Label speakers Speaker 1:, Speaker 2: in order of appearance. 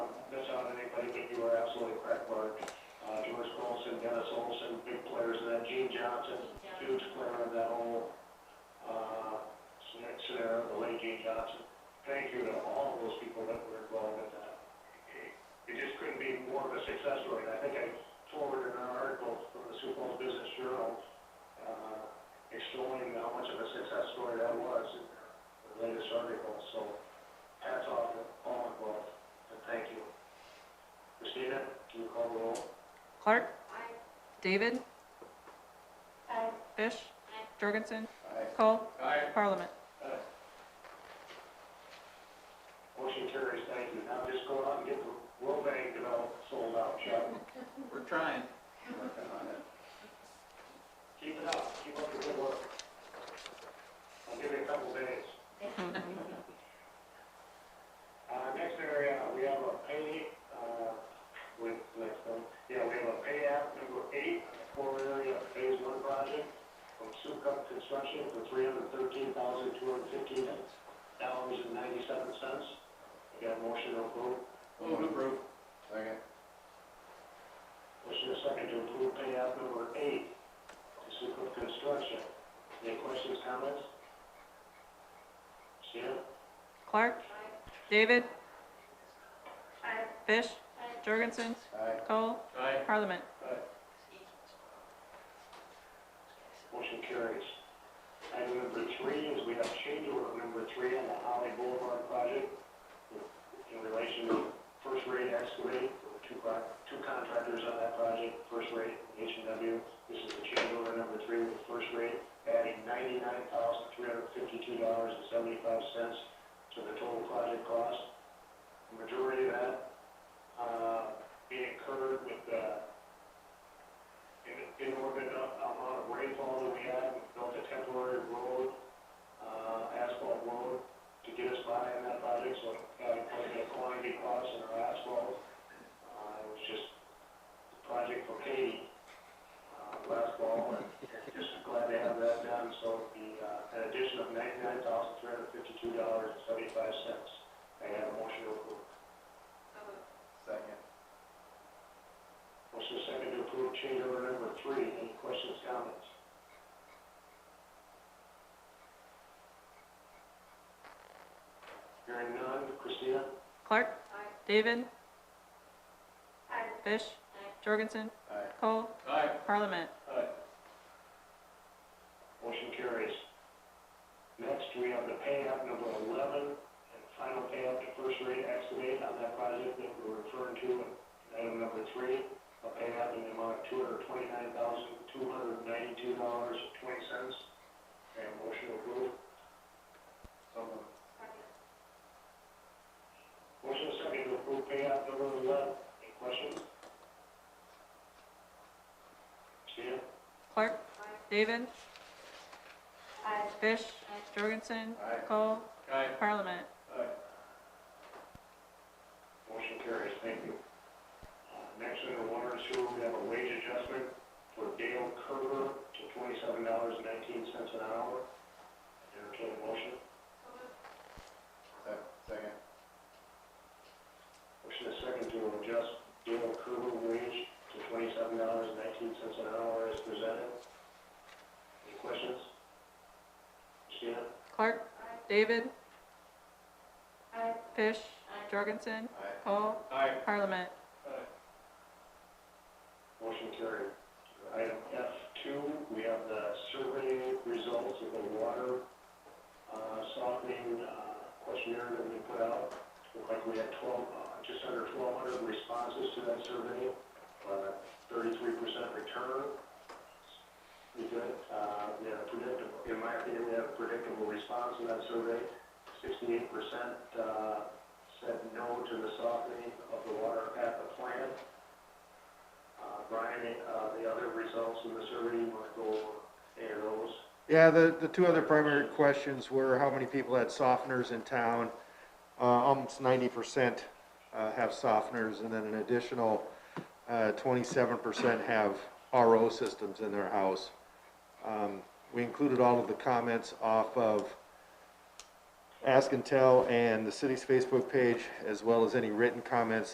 Speaker 1: I think you are absolutely correct, Mark. Uh, George Colson, Dennis Olson, big players, and then Gene Johnson, huge player in that whole, uh, scenario, scenario, the late Gene Johnson. Thank you to all of those people that were involved in that. It- It just couldn't be more of a success story. I think I forwarded an article from the Sioux Falls Business Journal, uh, extolling how much of a success story that was in the latest article, so hats off to all involved, and thank you. Christina, can you call the roll?
Speaker 2: Clark? David? Fish? Jorgensen?
Speaker 1: Aye.
Speaker 2: Cole?
Speaker 1: Aye.
Speaker 2: Parliament?
Speaker 1: Motion carries, thank you. Now just go out and get the road bank developed, sold out, Chuck.
Speaker 3: We're trying.
Speaker 1: Working on it. Keep it up, keep up your good work. I'll give you a couple days. Uh, next area, we have a pay, uh, with, next one, yeah, we have a pay app number eight, core area of phase one project from Sukup Construction for three hundred thirteen thousand, two hundred fifteen dollars and ninety-seven cents. We got a motion to approve.
Speaker 3: Move to approve.
Speaker 1: Second. Motion is second to approve pay app number eight to Sukup Construction. Any questions, comments? Stan?
Speaker 2: Clark? David? Fish? Jorgensen?
Speaker 1: Aye.
Speaker 2: Cole?
Speaker 3: Aye.
Speaker 2: Parliament?
Speaker 1: Motion carries. Item number three is we have change order number three on the Holly Boulevard project in relation to first rate excavate, There were two pro- two contractors on that project, first rate, H and W. This is the change order number three with first rate, adding ninety-nine thousand, three hundred fifty-two dollars and seventy-five cents to the total project cost. The Majority of that, uh, being incurred with, uh, in, in order to, amount of rainfall that we had, we built a temporary road, uh, asphalt road to get us by in that project, so it got quite a bit of quantity cost in our asphalt. Uh, it was just a project for Katie, uh, last fall, and and just glad to have that done, so the, uh, an addition of ninety-nine thousand, three hundred fifty-two dollars and seventy-five cents. I have a motion to approve.
Speaker 3: Second.
Speaker 1: Motion is second to approve change order number three. Any questions, comments? Hearing none. Christina?
Speaker 2: Clark? David? Fish? Jorgensen?
Speaker 1: Aye.
Speaker 2: Cole?
Speaker 3: Aye.
Speaker 2: Parliament?
Speaker 1: Aye. Motion carries. Next, we have the payout number eleven, and final payout to first rate excavate on that project that we're referring to in item number three, a payout in the amount of two hundred twenty-nine thousand, two hundred ninety-two dollars, twenty cents. And motion approved. So moved. Motion is second to approve payout number eleven. Any questions? Stan?
Speaker 2: Clark? David? Fish? Jorgensen?
Speaker 1: Aye.
Speaker 2: Cole?
Speaker 3: Aye.
Speaker 2: Parliament?
Speaker 1: Aye. Motion carries, thank you. Uh, Next, under water and sewer, we have a wage adjustment for Dale Kerber to twenty-seven dollars and nineteen cents an hour. Entertain a motion.
Speaker 3: Second.
Speaker 1: Motion is second to adjust Dale Kerber wage to twenty-seven dollars and nineteen cents an hour as presented. Any questions? Christina?
Speaker 2: Clark? David? Fish? Jorgensen? Cole?
Speaker 3: Aye.
Speaker 2: Parliament?
Speaker 1: Motion carried. Item F two, we have the survey results of the water, uh, softening, uh, questionnaire that we put out. Looked like we had twelve, uh, just under twelve hundred responses to that survey, uh, thirty-three percent return. We did, uh, we had a predictable, in my opinion, we had a predictable response to that survey. Sixty-eight percent, uh, said no to the softening of the water at the plant. Uh, Brian, uh, the other results in the survey, you want to go over any of those?
Speaker 4: Yeah, the, the two other primary questions were how many people had softeners in town? Uh, almost ninety percent, uh, have softeners, and then an additional, uh, twenty-seven percent have RO systems in their house. Um, we included all of the comments off of Ask and Tell and the city's Facebook page, as well as any written comments